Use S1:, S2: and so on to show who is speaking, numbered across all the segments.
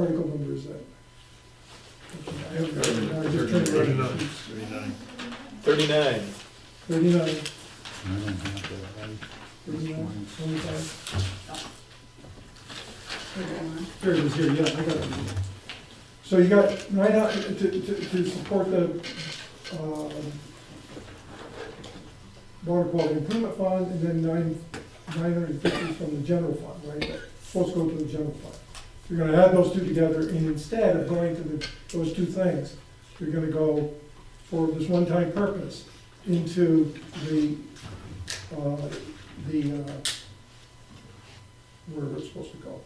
S1: article number is that? I have got it. I just turned it
S2: Thirty-nine.
S1: around.
S2: Thirty-nine.
S3: Thirty-nine.
S1: Thirty-nine,
S2: I don't have that. I- this
S1: thirty-nine,
S2: one.
S1: twenty-five. There it is here, yeah, I got it. So you got, right now, to, to, to support the, um, water quality improvement fund, and then nine, nine hundred and fifty from the general fund, right? Supposed to go to the general fund. You're gonna add those two together, and instead of going to the, those two things, you're gonna go for this one-time purpose into the, uh, the, uh, where it's supposed to go.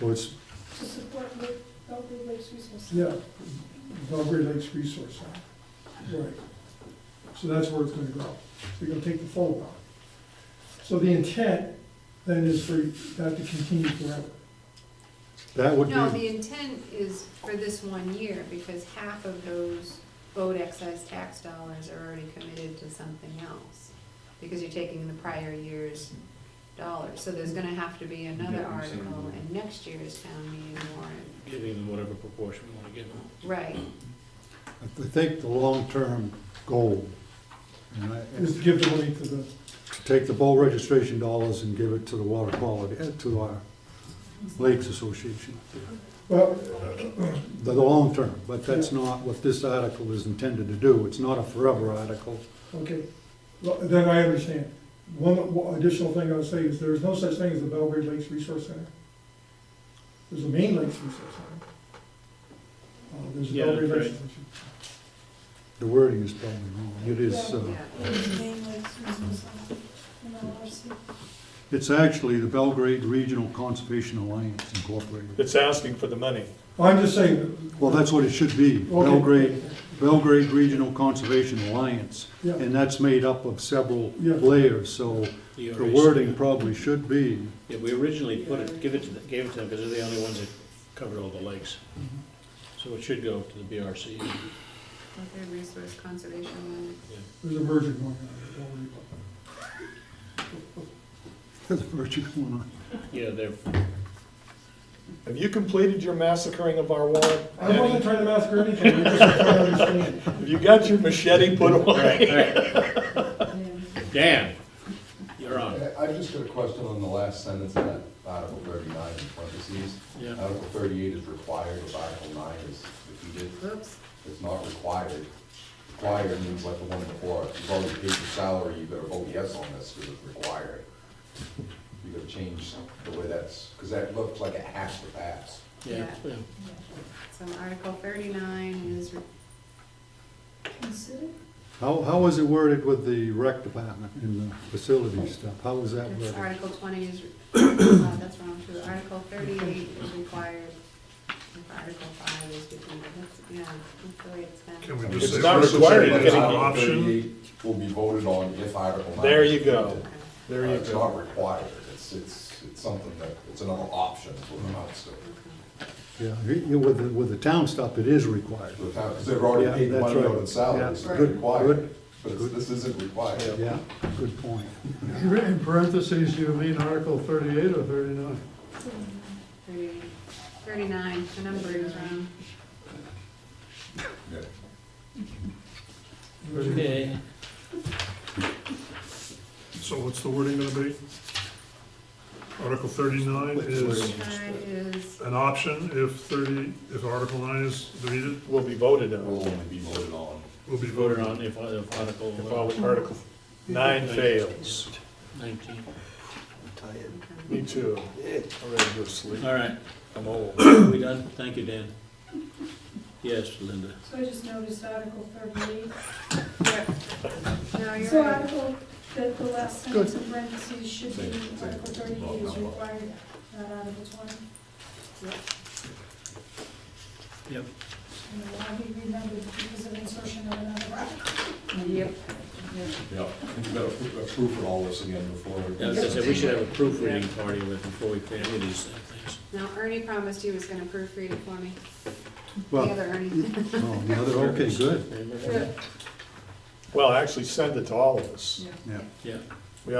S2: Well, it's,
S4: To support the Belgrade Lakes Resource.
S1: Yeah, Belgrade Lakes Resource Center, right. So that's where it's gonna grow. So you're gonna take the full amount. So the intent then is for that to continue forever.
S2: that would
S5: No,
S2: be,
S5: the intent is for this one year, because half of those boat excise tax dollars are already committed to something else. Because you're taking the prior year's dollars, so there's gonna have to be another
S3: Yeah, I'm saying.
S5: article in next year's town meeting warrant,
S3: Giving them whatever proportion we wanna give them.
S5: right?
S2: I think the long-term goal, and I-
S1: Is to give the money to the,
S2: to take the boat registration dollars and give it to the water quality, eh, to our Lakes Association.
S1: well,
S2: The the long term, but that's not what this article is intended to do. It's not a forever article.
S1: okay, Well, then I understand. One one additional thing I would say is there is no such thing as the Belgrade Lakes Resource Center. There's a Main Lakes Resource Center. Uh, There's a
S3: Yeah,
S1: Belgrade
S3: that's
S1: Lakes.
S2: The wording is probably wrong. It is, uh,
S3: Uh-huh.
S5: Yeah,
S4: Main Lakes Resource Center, MLRC.
S2: it's actually the Belgrade Regional Conservation Alliance Incorporated.
S3: It's asking for the money.
S1: I'm just saying,
S2: Well, that's what it should be,
S1: Okay.
S2: Belgrade, Belgrade Regional Conservation Alliance.
S1: yeah.
S2: And that's made up of several
S1: Yeah.
S2: layers, so the wording probably should be,
S6: Yeah, we originally put it, give it to, the- gave it to them, because they're the only ones that covered all the lakes. So it should go to the BRC.
S5: with their resource conservation alliance.
S1: There's a merger going on, don't worry about
S2: the virtue going on.
S6: Yeah, they're,
S3: Have you completed your massacring of our warrant?
S1: it. I wasn't trying to massacre anything, I'm just trying to understand.
S3: Have you got your machete put away?
S6: Dan, you're on.
S7: I- I've just got a question on the last sentence of that Article thirty-nine in parentheses.
S6: Yeah.
S7: Article thirty-eight is required, if Article nine is defeated,
S5: Oops,
S7: it's not required. Required means like the one before, if you've already paid your salary, you better vote yes on this, because it's required. You gotta change the way that's, because that looks like it has to pass.
S6: Yeah, yeah.
S5: so Article thirty-nine is, re-
S4: Consider,
S2: How, how is it worded with the rec department and the facility stuff? How is that
S5: that's
S2: worded?
S5: Article twenty is, re- uh, that's wrong too, Article thirty-eight is required. If Article five is defeated, that's, yeah, that's the way it's been.
S2: Can we
S3: just It's say- not required,
S7: But
S3: it's an
S7: Article
S2: option.
S7: 38 Will be voted on if Article nine.
S3: There
S7: is
S3: you go.
S7: defeated.
S3: There
S7: Uh,
S3: you
S7: It's not
S3: go.
S7: required, it's, it's, it's something that, it's another option for the amounts to.
S2: Yeah, you- you- with, the- with the town stuff, it is required.
S7: the town, because they've already
S2: Yeah,
S7: paid the
S2: that's
S7: money
S2: right.
S7: out in salaries,
S2: Yeah,
S7: it's
S2: good,
S7: required,
S2: good,
S7: but it's- this isn't required.
S2: Yeah, good point.
S8: In parentheses, you mean Article thirty-eight or thirty-nine?
S5: Thirty- Thirty-nine, the number is wrong.
S7: Yeah.
S6: Okay.
S8: So what's the wording gonna be? Article thirty-nine is
S5: Thirty-nine is,
S8: an option if thirty, if Article nine is deleted,
S3: Will be voted
S7: It
S3: on
S7: will only be voted on.
S8: will be
S6: Voted
S8: voted on.
S6: on if, if
S3: if all
S6: Article
S3: of Article nine fails.
S6: nineteen.
S3: Me too. I'm ready to go to sleep.
S6: All right,
S3: I'm old.
S6: we done? Thank you, Dan. Yes, Linda.
S4: so I just noticed Article thirty-eight.
S5: no, you're
S4: So
S5: right.
S4: Article, the, the last sentence in parentheses should be
S7: Same, same.
S4: Article thirty-eight is
S7: Well, no.
S4: required, not Article twenty.
S6: Yep.
S4: And it will be remembered because of insertion of another article.
S5: Yep.
S7: Yeah, and you gotta appro- approve all this again before.
S6: Yeah, I was gonna say, we should have a proofreading party with, before we pay any of these things.
S5: Now Ernie promised he was gonna proofread it for me, the
S2: Well,
S5: other Ernie.
S2: oh, the other, okay, good,
S6: Remember?
S3: Well, actually send it to all of us.
S2: yeah.
S6: Yeah,